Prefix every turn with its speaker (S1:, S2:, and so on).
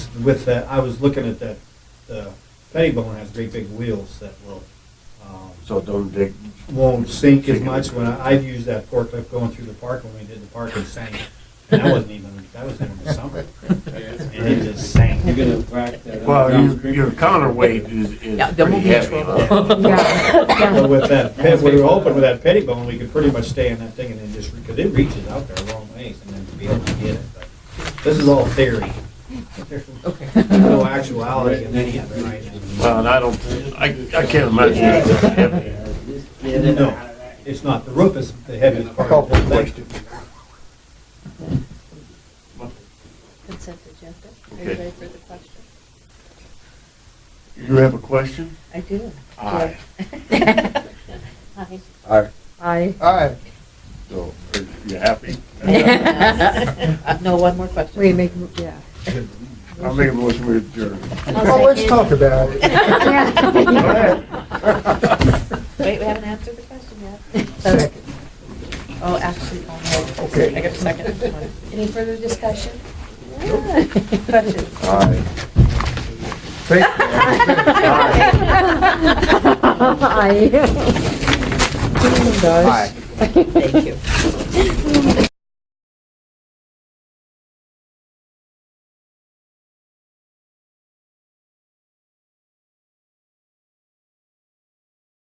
S1: with that, I was looking at that, the Pettibone has great big wheels that will, um,
S2: So it don't dig.
S1: won't sink as much. When I, I've used that forklift going through the park when we did the park, it sank. And that wasn't even, that was in the summer. And it just sank.
S3: You're gonna rack that up.
S2: Well, your, your counterweight is,
S4: Yeah,
S2: is
S4: there
S2: pretty
S4: will be
S2: heavy. huh?
S4: trouble.
S1: But with that, pit, we were hoping with that Pettibone, we could pretty much stay in that thing and then just, because it reaches out there a long ways and then to be able to get it. But This is all theory. There's
S4: Okay.
S1: No actuality in any of it right now.
S2: Well, and I don't, I, I can't imagine it's that heavy.
S1: No, it's not. The roof is the heaviest part of the whole thing.
S5: Consent agenda. Are you
S2: Okay.
S5: ready for the question?
S2: You have a question?
S5: I do.
S2: Aye.
S5: Hi.
S6: Aye.
S5: Hi.
S6: Aye.
S2: So, are you happy?
S5: No, one more question.
S7: Wait, make, yeah.
S2: I'll make a motion to adjourn.
S6: Well, let's talk about it.
S5: Wait, we haven't answered the question yet.
S6: Second.
S5: Oh, actually, oh, no.
S6: Okay.
S5: I got a second. Any further discussion? Questions?
S6: Aye. Thank you.
S7: Aye.
S6: Aye.
S4: Thank you.